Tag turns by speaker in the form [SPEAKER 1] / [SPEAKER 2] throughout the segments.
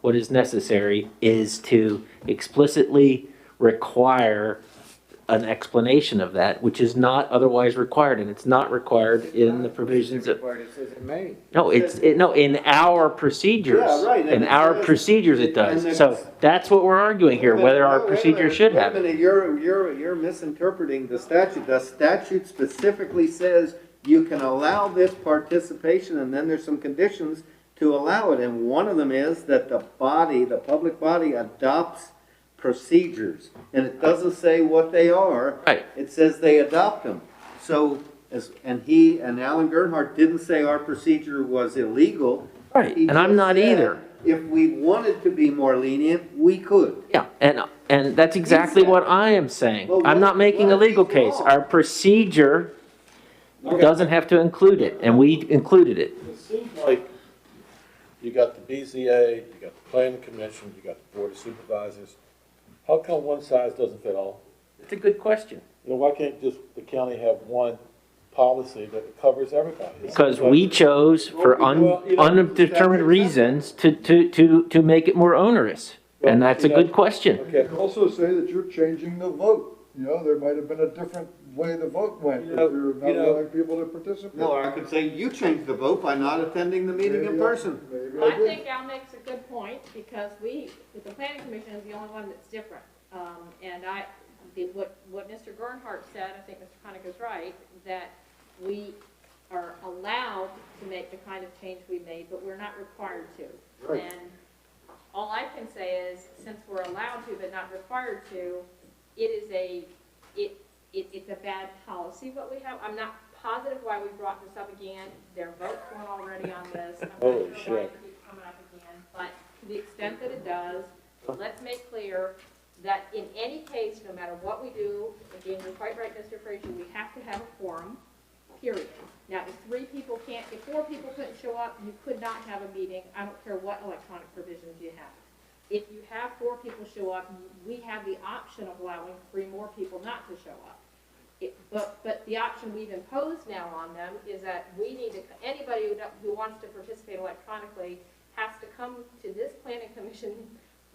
[SPEAKER 1] what is necessary is to explicitly require an explanation of that, which is not otherwise required, and it's not required in the provisions of,
[SPEAKER 2] Required, it says it may.
[SPEAKER 1] no, it's, it- no, in our procedures.
[SPEAKER 2] Yeah, right, and
[SPEAKER 1] In
[SPEAKER 2] it
[SPEAKER 1] our
[SPEAKER 2] says-
[SPEAKER 1] procedures it
[SPEAKER 2] and
[SPEAKER 1] does.
[SPEAKER 2] it's-
[SPEAKER 1] So that's what we're arguing here, whether our
[SPEAKER 2] No, wait a
[SPEAKER 1] procedure
[SPEAKER 2] minute,
[SPEAKER 1] should
[SPEAKER 2] wait a
[SPEAKER 1] have it.
[SPEAKER 2] minute, You're, you're, you're misinterpreting the statute. The statute specifically says you can allow this participation, and then there's some conditions to allow it. And one of them is that the body, the public body adopts procedures. And it doesn't say what they are.
[SPEAKER 1] Right.
[SPEAKER 2] It says they adopt them. So, as, and he, and Alan Gernhardt didn't say our procedure was illegal.
[SPEAKER 1] Right,
[SPEAKER 2] He
[SPEAKER 1] and I'm
[SPEAKER 2] just
[SPEAKER 1] not
[SPEAKER 2] said
[SPEAKER 1] either.
[SPEAKER 2] If we wanted to be more lenient, we could.
[SPEAKER 1] Yeah, and, and that's exactly what I am saying.
[SPEAKER 2] Well,
[SPEAKER 1] I'm not
[SPEAKER 2] what-
[SPEAKER 1] making
[SPEAKER 2] what
[SPEAKER 1] a
[SPEAKER 2] if
[SPEAKER 1] legal
[SPEAKER 2] he's
[SPEAKER 1] case.
[SPEAKER 2] wrong?
[SPEAKER 1] Our procedure doesn't have to include it, and we included it.
[SPEAKER 3] It seems like you got the BZA, you got the planning commission, you got the board of supervisors. How come one size doesn't fit all?
[SPEAKER 1] It's a good question.
[SPEAKER 3] You know, why can't just the county have one policy that covers everybody? It
[SPEAKER 1] Because
[SPEAKER 3] seems like-
[SPEAKER 1] we chose for un,
[SPEAKER 3] Well, you know,
[SPEAKER 1] undetermined reasons to, to, to, to make it more onerous. And that's a good question.
[SPEAKER 3] Okay,
[SPEAKER 4] could also say that you're changing the vote. You know, there might have been a different way the vote went if
[SPEAKER 3] You know-
[SPEAKER 4] you're not
[SPEAKER 3] you know-
[SPEAKER 4] allowing people to participate.
[SPEAKER 2] No, or I could say you changed the vote by not attending the meeting in
[SPEAKER 4] Maybe I-
[SPEAKER 2] person.
[SPEAKER 4] maybe
[SPEAKER 5] Well, I
[SPEAKER 4] did.
[SPEAKER 5] think Al makes a good point, because we, the planning commission is the only one that's different. Um, and I, the- what, what Mr. Gernhardt said, I think Mr. Connick is right, that we are allowed to make the kind of change we made, but we're not required to.
[SPEAKER 4] Right.
[SPEAKER 5] And all I can say is, since we're allowed to but not required to, it is a, it, it, it's a bad policy what we have. I'm not positive why we brought this up again. There are votes going already on this. I'm not sure
[SPEAKER 3] Holy
[SPEAKER 5] why
[SPEAKER 3] shit.
[SPEAKER 5] it keeps coming up again, but to the extent that it does, let's make clear that in any case, no matter what we do, again, you're quite right, Mr. Frazier, we have to have a quorum, period. Now, if three people can't, if four people couldn't show up, you could not have a meeting. I don't care what electronic provisions you have. If you have four people show up, we have the option of allowing three more people not to show up. It, but, but the option we've imposed now on them is that we need to, anybody who, don't- who wants to participate electronically has to come to this planning commission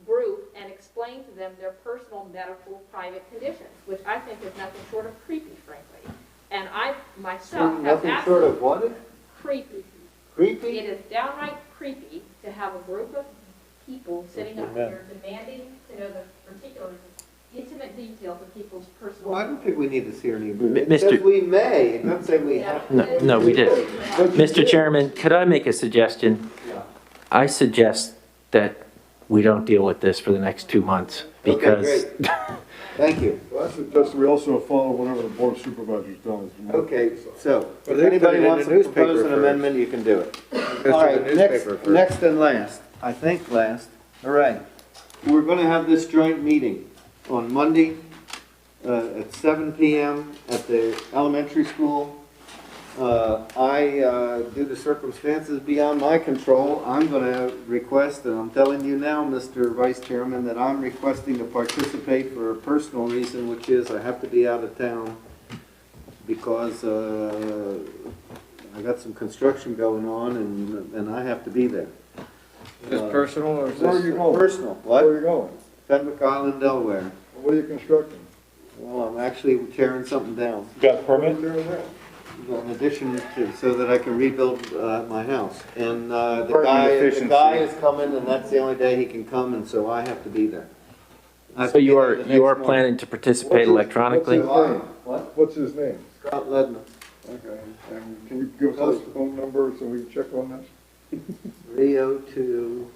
[SPEAKER 5] group and explain to them their personal medical private conditions, which I think is nothing short of creepy, frankly. And I myself have
[SPEAKER 2] Nothing short
[SPEAKER 5] absolutely
[SPEAKER 2] of what?
[SPEAKER 5] creepy. It
[SPEAKER 2] Creepy?
[SPEAKER 5] is downright creepy to have a group of people sitting up
[SPEAKER 3] Amen.
[SPEAKER 5] here demanding to know the particular intimate details of people's personal.
[SPEAKER 2] Well, I don't think we need to see her
[SPEAKER 1] M-
[SPEAKER 2] name. It
[SPEAKER 1] Mr.
[SPEAKER 2] says we may, it doesn't say we have.
[SPEAKER 1] No, no, we did.
[SPEAKER 2] But you
[SPEAKER 1] Mr.
[SPEAKER 2] did.
[SPEAKER 1] Chairman, could I make a suggestion?
[SPEAKER 2] Yeah.
[SPEAKER 1] I suggest that we don't deal with this for the next two months because
[SPEAKER 2] Okay, great. Thank you.
[SPEAKER 4] Well, I suggest we also follow whatever the board of supervisors does.
[SPEAKER 2] Okay, so
[SPEAKER 6] But they
[SPEAKER 2] if
[SPEAKER 6] put it
[SPEAKER 2] anybody
[SPEAKER 6] in
[SPEAKER 2] wants
[SPEAKER 6] the
[SPEAKER 2] to propose
[SPEAKER 6] newspaper
[SPEAKER 2] an
[SPEAKER 6] first.
[SPEAKER 2] amendment, you can do it.
[SPEAKER 6] the
[SPEAKER 2] All right, next,
[SPEAKER 6] newspaper first.
[SPEAKER 2] next and last, I think last, all right. We're gonna have this joint meeting on Monday, uh, at seven PM at the elementary school. Uh, I, uh, due to circumstances beyond my control, I'm gonna request, and I'm telling you now, Mr. Vice Chairman, that I'm requesting to participate for a personal reason, which is I have to be out of town because, uh, I got some construction going on and, and I have to be there. Uh,
[SPEAKER 6] Is this personal or is
[SPEAKER 4] Where are
[SPEAKER 6] this?
[SPEAKER 4] you going?
[SPEAKER 2] Personal,
[SPEAKER 4] Where are
[SPEAKER 2] what?
[SPEAKER 4] you going?
[SPEAKER 2] Fenwick Island, Delaware.
[SPEAKER 4] What are you constructing?
[SPEAKER 2] Well, I'm actually tearing something down,
[SPEAKER 3] you got a permit?
[SPEAKER 4] There and there.
[SPEAKER 2] in addition to, so that I can rebuild, uh, my house. And, uh, the
[SPEAKER 6] Apartment
[SPEAKER 2] guy, the
[SPEAKER 6] efficiency.
[SPEAKER 2] guy is coming and that's the only day he can come and so I have to be there. I have
[SPEAKER 1] so
[SPEAKER 2] to be
[SPEAKER 1] you
[SPEAKER 2] there
[SPEAKER 1] are,
[SPEAKER 2] the
[SPEAKER 1] you
[SPEAKER 2] next
[SPEAKER 1] are
[SPEAKER 2] morning.
[SPEAKER 1] planning to participate electronically?
[SPEAKER 2] Why? What?
[SPEAKER 4] What's his name?
[SPEAKER 2] Scott Ledman,
[SPEAKER 4] Okay, and can you give us his phone number so we can check on that?
[SPEAKER 2] Rio to.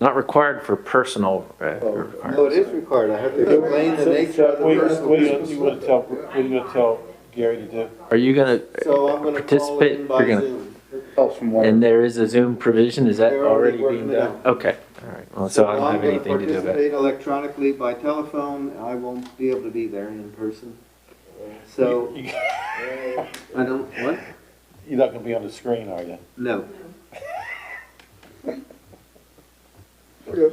[SPEAKER 1] Not required for personal. uh,
[SPEAKER 2] No, it
[SPEAKER 1] requirements.
[SPEAKER 2] is required, I have to explain the
[SPEAKER 3] So-
[SPEAKER 2] nature of
[SPEAKER 3] so
[SPEAKER 2] the
[SPEAKER 3] What are you-
[SPEAKER 2] personal.
[SPEAKER 3] what are you, gonna- you gonna tell, what are you gonna tell Gary to do?
[SPEAKER 1] Are you gonna,
[SPEAKER 2] So I'm gonna call it in
[SPEAKER 1] Participate,
[SPEAKER 2] by
[SPEAKER 1] you're gonna-
[SPEAKER 2] Zoom.
[SPEAKER 4] Help from
[SPEAKER 1] and there is a Zoom provision, is that
[SPEAKER 2] They're already
[SPEAKER 1] already being
[SPEAKER 2] working
[SPEAKER 1] done?
[SPEAKER 2] it
[SPEAKER 1] Okay, all right, well, so I don't have anything to do
[SPEAKER 2] I'm
[SPEAKER 1] with
[SPEAKER 2] gonna
[SPEAKER 1] it.
[SPEAKER 2] participate electronically by telephone, I won't be able to be there in person. So,
[SPEAKER 3] You-
[SPEAKER 2] I don't, what?
[SPEAKER 3] You're not gonna be on the screen, are you?
[SPEAKER 2] No.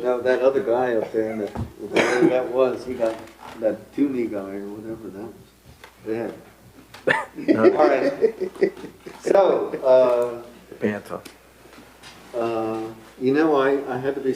[SPEAKER 2] No, that other guy up there, in the- whatever that was, he got, that Toomey guy or whatever that was. Yeah. All right. So,
[SPEAKER 1] Pants off.
[SPEAKER 2] uh, uh, you know, I, I had to be